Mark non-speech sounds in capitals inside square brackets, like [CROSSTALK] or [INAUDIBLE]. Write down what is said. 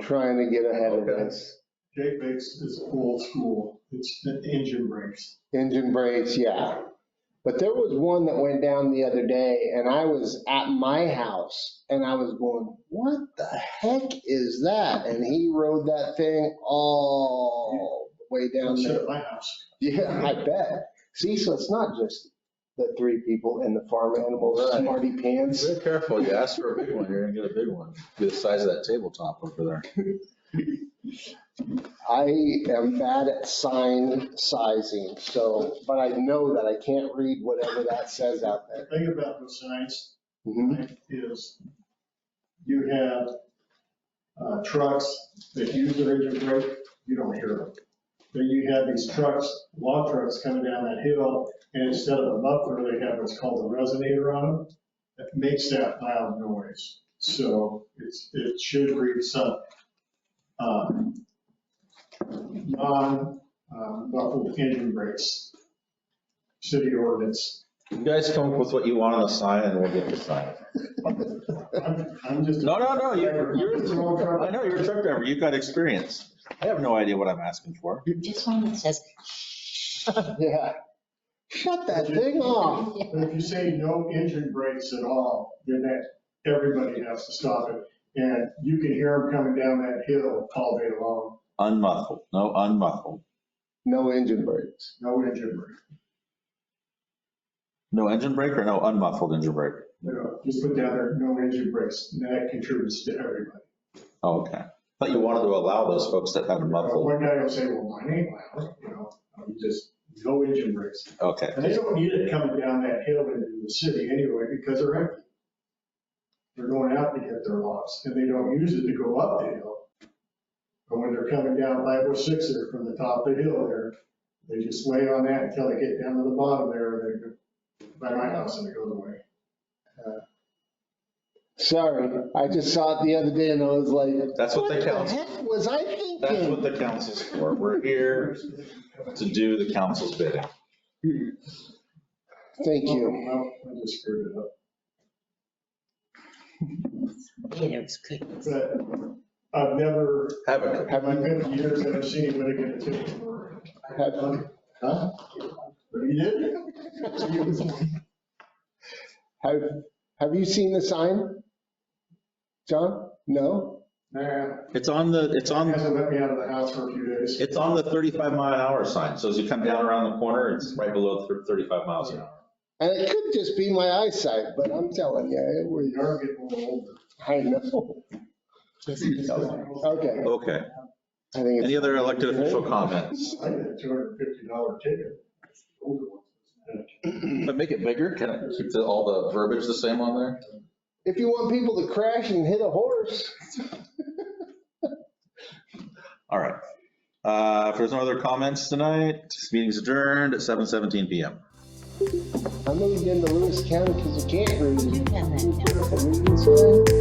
trying to get ahead of Okay. this. Jake makes is old school. It's the engine brakes. Engine brakes, yeah. But there was one that went down the other day and I was at my house and I was going, what the heck is that? And he rode that thing all the way down Shut there. at my house. Yeah, I bet. See, so it's not just the three people and the farm animals, Right. smarty pants. Be careful, you ask for a big one, you're gonna get a big one, be the size of that tabletop over there. I am bad at sign sizing, so, but I know that I can't read whatever that says out The there. thing about those signs Mhm. is you have uh, trucks that use their engine brake, you don't hear them. Then you have these trucks, log trucks coming down that hill, and instead of a muffler, they have what's called a resonator on them that makes that loud noise. So it's, it should read some, um, non, um, muffled engine brakes. City ordinance. You guys come up with what you want on the sign and we'll get the sign. I'm, I'm just. No, no, no, you're, you're, I'm just a log truck. I know, you're a truck driver, you've got experience. I have no idea what I'm asking for. Just one that says, [LAUGHS] Yeah. Shut that thing off. "Oh, But if you say no engine brakes at all, then that, everybody has to stop it. And you can hear them coming down that hill all day long, Unmuffled, no unmuffled, No engine brakes. no engine brake. no engine brake or no unmuffled engine brake? You know, just put down there, no engine brakes, and that contributes to everybody. Oh, Okay, but you wanted to allow those folks that have a muffled, One guy will say, well, mine ain't loud, you know, I'm just, no engine brakes. okay. And they don't need it coming down that hill into the city anyway, because they're empty. They're going out to get their lots, and they don't use it to go up the hill. But when they're coming down 506 there from the top of the hill there, they just lay on that until they get down to the bottom there, and they go by my house and it goes away. Sorry, I just saw it the other day and I was like, That's what the council, heck was I that's thinking? what the council's for, we're here to do the council's bidding. Thank you. Well, I just screwed it up. it was good. But I've never, Have a, have I been years, I've seen anybody get a ticket for it. Have Huh? But he did. He was- have have you seen the sign? John? No? Nah. it's on the, it's on. He hasn't let me out of the house for a few days. It's on the 35 mile an hour sign, so as you come down around the corner, it's right below thir- 35 miles an hour. And it could just be my eyesight, but I'm telling you, We we, are getting a little older. I know. Okay, Okay, I think any it's, other elected official comments? I got a two hundred and fifty dollar ticket. Older ones. But make it bigger, can I keep the- all the verbiage the same on there? if you want people to crash and hit a horse, All right. Uh, If there's no other comments tonight, this meeting's adjourned at 7:17 PM. I moved into Lewis County because you can't read. You've done that now. Read this one.